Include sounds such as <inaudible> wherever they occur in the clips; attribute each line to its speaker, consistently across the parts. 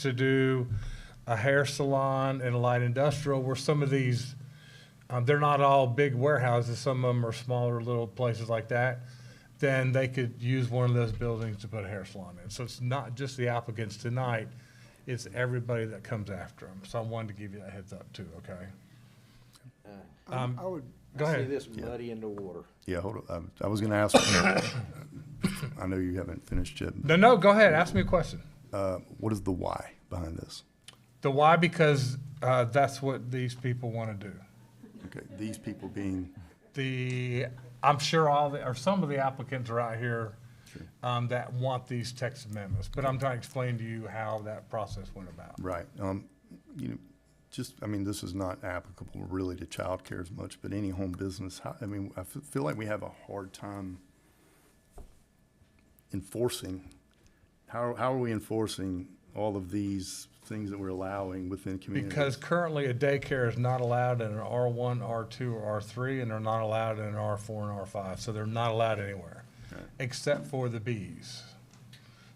Speaker 1: to do a hair salon and a light industrial where some of these, um, they're not all big warehouses, some of them are smaller little places like that, then they could use one of those buildings to put a hair salon in. So it's not just the applicants tonight, it's everybody that comes after them. So I wanted to give you that heads up too, okay? Um,
Speaker 2: I would,
Speaker 1: Go
Speaker 3: Uh, I see
Speaker 1: ahead.
Speaker 3: this muddy in the water.
Speaker 4: Yeah, hold on. I was gonna ask, <coughs> I know you haven't finished yet.
Speaker 1: No, no, go ahead, ask me a question.
Speaker 4: Uh, What is the why behind this?
Speaker 1: The why, because uh, that's what these people want to do.
Speaker 4: Okay, these people being,
Speaker 1: The, I'm sure all, the or some of the applicants are out here um, that want these text amendments, but I'm trying to explain to you how that process went about.
Speaker 4: right, um, you know, just, I mean, this is not applicable really to childcare as much, but any home business, how- I mean, I f- feel like we have a hard time enforcing, how, how are we enforcing all of these things that we're allowing within communities?
Speaker 1: Because currently a daycare is not allowed in an R1, R2, or R3, and they're not allowed in an R4 and R5, so they're not allowed anywhere, except for the Bs.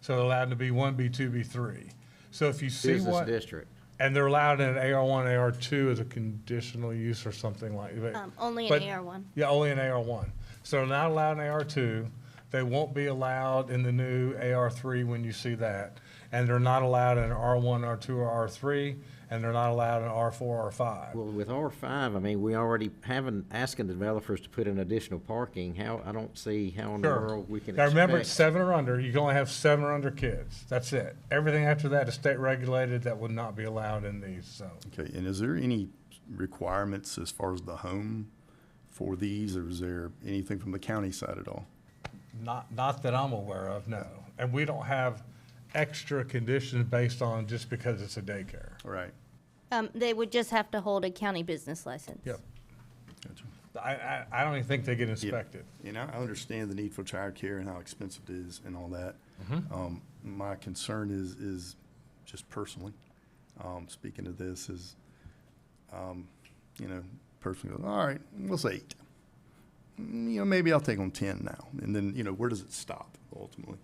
Speaker 1: So they're allowed to be one, B two, B three. So if you see
Speaker 3: Business
Speaker 1: what,
Speaker 3: district.
Speaker 1: and they're allowed in an AR1, AR2 as a conditional use or something like that.
Speaker 5: Um, only
Speaker 1: But-
Speaker 5: an AR one.
Speaker 1: Yeah, only in AR one. So they're not allowed in AR two. They won't be allowed in the new AR three when you see that. And they're not allowed in R one, R two, or R three, and they're not allowed in R four, R five.
Speaker 3: Well, with R five, I mean, we already having, asking the developers to put in additional parking. How, I don't see how in the
Speaker 1: Sure.
Speaker 3: world we can
Speaker 1: Now, remember, it's
Speaker 3: expect.
Speaker 1: seven or under. You can only have seven or under kids. That's it. Everything after that is state regulated. That would not be allowed in these zones.
Speaker 4: Okay, and is there any requirements as far as the home for these, or is there anything from the county side at all?
Speaker 1: Not, not that I'm aware of, no. And we don't have extra conditions based on just because it's a daycare.
Speaker 4: All right,
Speaker 5: Um, they would just have to hold a county business license.
Speaker 1: Yep.
Speaker 4: gotcha.
Speaker 1: I, I, I don't even think they get inspected.
Speaker 4: And I I understand the need for childcare and how expensive it is and all that. Um, My concern is, is just personally, um, speaking of this, is, um, you know, personally, all right, let's say eight. Mm, You know, maybe I'll take on ten now, and then, you know, where does it stop ultimately?
Speaker 2: Um,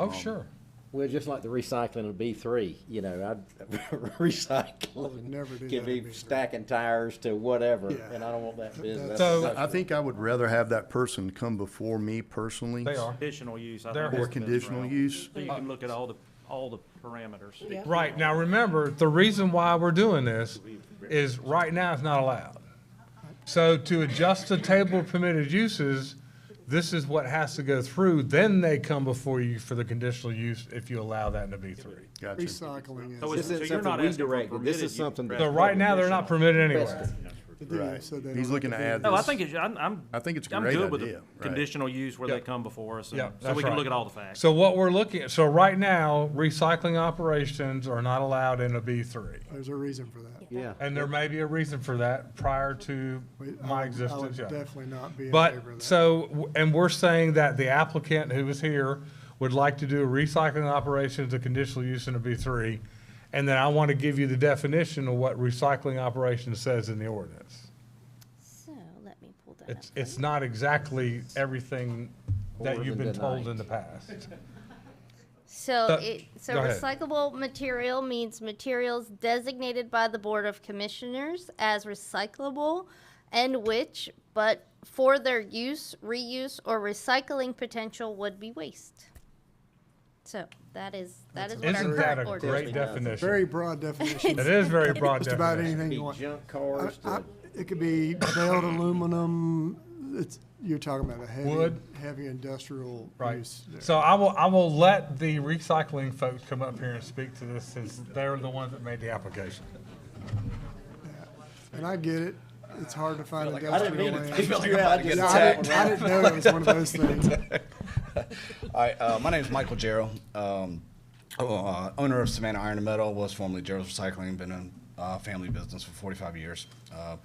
Speaker 1: Oh, sure.
Speaker 3: Well, just like the recycling of B three, you know, I'd, <laughs>
Speaker 2: never do
Speaker 3: recycling
Speaker 2: that
Speaker 3: can
Speaker 2: in B3.
Speaker 3: be stacking tires to whatever,
Speaker 2: Yeah.
Speaker 3: and I don't want that business.
Speaker 1: So-
Speaker 3: That's-
Speaker 4: I think I would rather have that person come before me personally.
Speaker 1: They are.
Speaker 6: Conditional use, I
Speaker 1: They're-
Speaker 6: think.
Speaker 1: Or
Speaker 6: is
Speaker 4: Or
Speaker 6: the best
Speaker 4: conditional
Speaker 6: route.
Speaker 4: use?
Speaker 6: So you can look at all the, all the parameters.
Speaker 1: Right, now remember, the reason why we're doing this is right now it's not allowed. So to adjust the table of permitted uses, this is what has to go through, then they come before you for the conditional use if you allow that in a B three.
Speaker 4: Gotcha.
Speaker 2: recycling
Speaker 6: So
Speaker 3: This
Speaker 6: it's-
Speaker 2: is,
Speaker 6: so
Speaker 3: isn't
Speaker 6: you're not
Speaker 3: something we
Speaker 6: asking for
Speaker 3: directed. This
Speaker 6: permitted
Speaker 3: is
Speaker 6: use,
Speaker 3: something.
Speaker 6: Brad.
Speaker 1: So right now, they're not permitted anywhere.
Speaker 2: the deal,
Speaker 4: Right.
Speaker 2: so they
Speaker 4: He's
Speaker 2: don't
Speaker 4: looking
Speaker 2: have
Speaker 4: to
Speaker 2: do
Speaker 4: add
Speaker 6: No, I
Speaker 4: this.
Speaker 6: think it's, I'm, I'm.
Speaker 4: I think it's a
Speaker 6: I'm
Speaker 4: great
Speaker 6: good with
Speaker 4: idea, right.
Speaker 6: Conditional use where they
Speaker 1: Yeah.
Speaker 6: come before us,
Speaker 1: Yeah,
Speaker 6: and so
Speaker 1: that's
Speaker 6: we can
Speaker 1: right.
Speaker 6: look at all the facts.
Speaker 1: So what we're looking at, so right now, recycling operations are not allowed in a B three.
Speaker 2: There's a reason for that.
Speaker 3: Yeah.
Speaker 1: And there may be a reason for that prior to
Speaker 2: We- um, I would-
Speaker 1: my
Speaker 2: I would
Speaker 1: existence, yeah.
Speaker 2: definitely not be in
Speaker 1: But,
Speaker 2: favor of that.
Speaker 1: so, w- and we're saying that the applicant who is here would like to do a recycling operation as a conditional use in a B3. And then I want to give you the definition of what recycling operation says in the ordinance.
Speaker 5: So let me pull that up.
Speaker 1: It's, it's not exactly everything that
Speaker 3: Or
Speaker 1: you've been
Speaker 3: the
Speaker 1: told
Speaker 3: night.
Speaker 1: in the past.
Speaker 5: So
Speaker 1: Uh,
Speaker 5: it, so
Speaker 1: go ahead.
Speaker 5: recyclable material means materials designated by the Board of Commissioners as recyclable and which, but for their use, reuse, or recycling potential would be waste. So that is, that is what our
Speaker 1: Isn't that a
Speaker 5: current order is.
Speaker 1: great
Speaker 2: Very
Speaker 1: definition?
Speaker 2: broad definition,
Speaker 1: It is <laughs> very broad
Speaker 2: just about
Speaker 1: definition.
Speaker 2: anything
Speaker 3: Be
Speaker 2: you want.
Speaker 3: junk
Speaker 2: I-
Speaker 3: cars
Speaker 2: I-
Speaker 3: to,
Speaker 2: It could be baled aluminum, it's, you're talking about a heavy,
Speaker 1: Wood.
Speaker 2: heavy industrial
Speaker 1: Right.
Speaker 2: use.
Speaker 1: So I will, I will let the recycling folks come up here and speak to this since they're the ones that made the application.
Speaker 2: And I get it, it's hard to find
Speaker 3: I didn't mean to
Speaker 2: industrial land.
Speaker 3: take you out.
Speaker 2: Yeah, I didn't, I didn't know it was one of those things.
Speaker 7: All right, uh, my name is Michael Jarrell, um, uh, owner of Savannah Iron and Metal, was formerly Jarrell's Recycling, been in uh, family business for 45 years. Uh,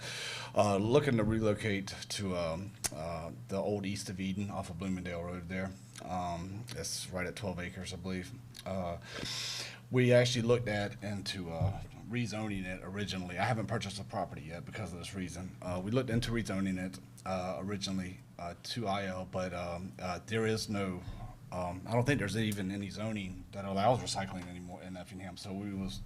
Speaker 7: uh, looking to relocate to um, uh, the old East of Eden off of Bloomingdale Road there. Um, it's right at 12 acres, I believe. Uh, we actually looked at into uh, rezoning it originally. I haven't purchased the property yet because of this reason. Uh, we looked into rezoning it uh, originally uh, to IL, but um, uh, there is no um, I don't think there's even any zoning that allows recycling anymore in Effingham, so we was